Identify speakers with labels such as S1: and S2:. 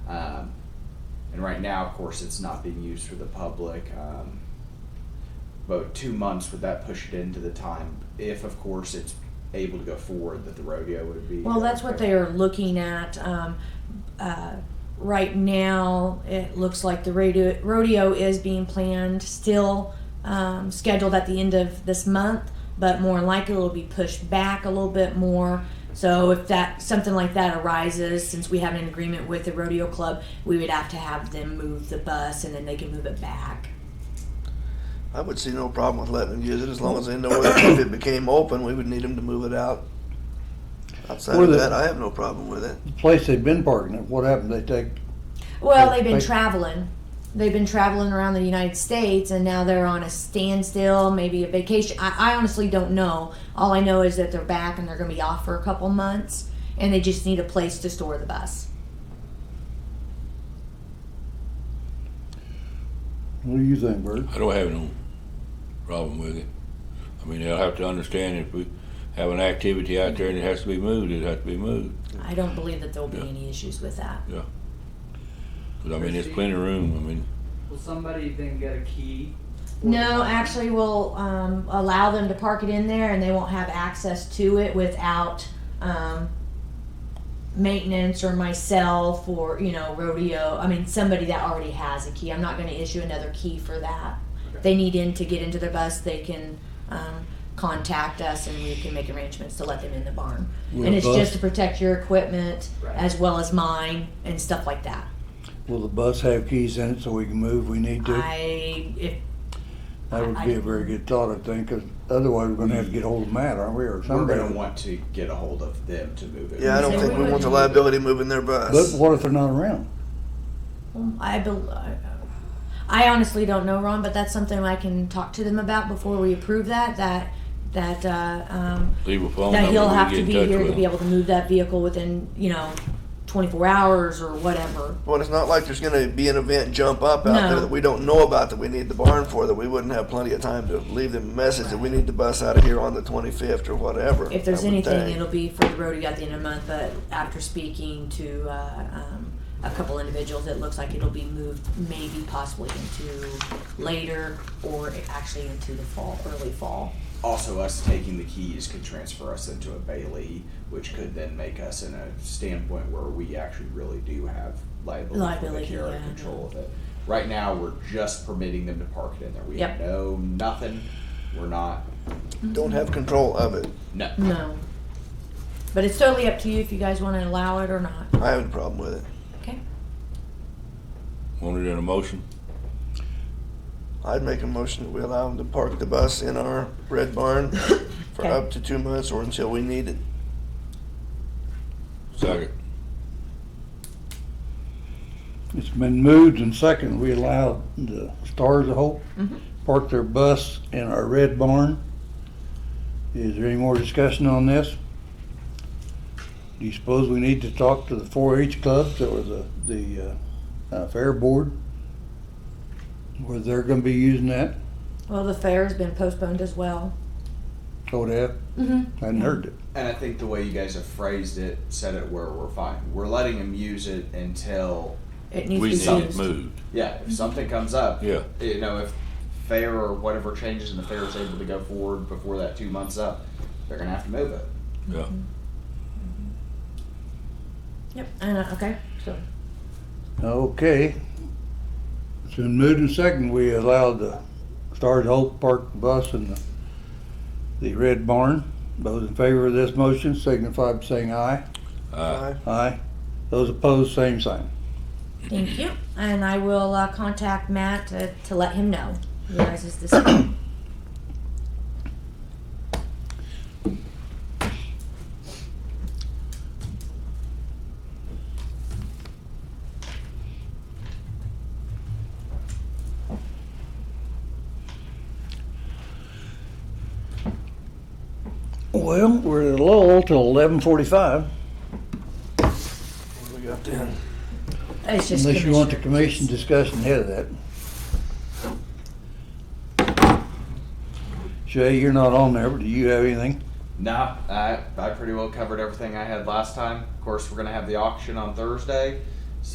S1: Um, And right now, of course, it's not being used for the public. Um, about two months would that push it into the time? If, of course, it's able to go forward, that the rodeo would be.
S2: Well, that's what they are looking at. Um, uh, right now, it looks like the radio, rodeo is being planned, still um, scheduled at the end of this month, but more than likely it'll be pushed back a little bit more. So if that something like that arises, since we have an agreement with the rodeo club, we would have to have them move the bus, and then they can move it back.
S3: I would see no problem with letting them use it as long as they know that if it became open, we would need them to move it out. Outside
S4: Or
S3: of
S4: the-
S3: that, I have no problem with it.
S4: The place they've been parking at, what happened? They take,
S2: Well, they've been
S4: Like-
S2: traveling. They've been traveling around the United States, and now they're on a standstill, maybe a vacation. I, I honestly don't know. All I know is that they're back and they're going to be off for a couple months, and they just need a place to store the bus.
S4: what do you think, Bert?
S5: I don't have no problem with it. I mean, they'll have to understand if we have an activity out there and it has to be moved, it has to be moved.
S2: I don't believe that there will be
S5: Yeah.
S2: any issues with that.
S5: Cause I mean, there's plenty of room, I mean,
S6: Will somebody then get a key?
S2: No, actually, we'll um, allow them to park it in there, and they won't have access to it without um, maintenance or myself or you know rodeo. I mean, somebody that already has a key. I'm not going to issue another key for that. If They need in to get into their bus. They can um, contact us, and we can make arrangements to let them in the barn.
S4: Will
S2: and
S4: the
S2: it's
S4: bus-
S2: just to protect your equipment
S6: Right.
S2: as well as mine and stuff like that.
S4: Will the bus have keys in it so we can move if we need to?
S2: I if
S4: That would
S2: I-
S4: be a very good thought, I think, 'cause otherwise we're gonna have to get hold of Matt, aren't we, or
S1: We're
S4: somebody?
S1: going to want to get a hold of them to move it.
S3: Yeah,
S2: So
S3: I don't think
S2: we
S3: we want the
S2: wouldn't-
S3: liability moving their
S4: But
S3: bus.
S4: what if they're not around?
S2: Um, I bel I- I honestly don't know, Ron, but that's something I can talk to them about before we approve that. That that uh, um,
S5: leave a phone
S2: that
S5: number,
S2: he'll have
S5: we
S2: to
S5: can
S2: be
S5: get in touch
S2: here to
S5: with
S2: be
S5: them.
S2: able to move that vehicle within you know 24 hours or whatever.
S3: Well, it's not like there's gonna be an event jump up out
S2: No.
S3: there that we don't know about, that we need the barn for, that we wouldn't have plenty of time to leave them a message that we need the bus out of here on the twenty-fifth or whatever.
S2: If there's
S3: I would
S2: anything,
S3: think.
S2: it'll be for the rodeo at the end of the month. But after speaking to uh, um, a couple individuals, it looks like it'll be moved maybe possibly into later or actually into the fall, early fall.
S1: Also, us taking the keys could transfer us into a Bailey, which could then make us in a standpoint where we actually really do have liability,
S2: Liability,
S1: for the care and
S2: yeah.
S1: control of it. Right now, we're just permitting them to park it in there. We
S2: Yep.
S1: know nothing. We're not.
S3: Don't have control of it.
S1: No.
S2: No. But it's totally up to you if you guys want to allow it or not.
S3: I have a problem with it.
S2: Okay.
S5: Want it in a motion?
S3: I'd make a motion that we allow them to park the bus in our red barn for
S2: Okay.
S3: up to two months or until we need it.
S5: Second,
S4: It's been moved and second, we allowed the Stars of Hope
S2: Mhm.
S4: park their bus in our red barn. Is there any more discussion on this? Do you suppose we need to talk to the four H clubs or the, the, uh, uh, fair board? Where they're gonna be using that?
S2: Well, the fair's been postponed as well.
S4: Oh, they have,
S2: Mm-hmm.
S4: I hadn't heard it.
S1: And I think the way you guys have phrased it, said it where we're fine. We're letting them use it until,
S2: It needs
S5: we need
S2: to be
S5: it
S2: used.
S5: moved,
S1: yeah,
S2: Mm-hmm.
S1: if something comes up,
S5: yeah.
S1: you know, if fair or whatever changes and the fair is able to go forward before that two months up, they're going to have to move it.
S5: Yeah.
S2: Yep. And, uh, okay. So
S4: Okay. It's been moved and second, we allowed the Stars of Hope Park bus and the, the Red Barn. Those in favor of this motion signify by saying aye.
S5: Uh,
S4: Aye. Those opposed, same sign.
S2: thank you. And I will uh, contact Matt to, to let him know. You guys is this.
S4: Well, we're at a lull till eleven forty-five,
S3: What do we got then?
S2: it's just
S4: unless you want the
S2: commissioner.
S4: commission discussion ahead of that. Shay, you're not on there, but do you have anything?
S1: No, I, I pretty well covered everything I had last time. Of course, we're going to have the auction on Thursday.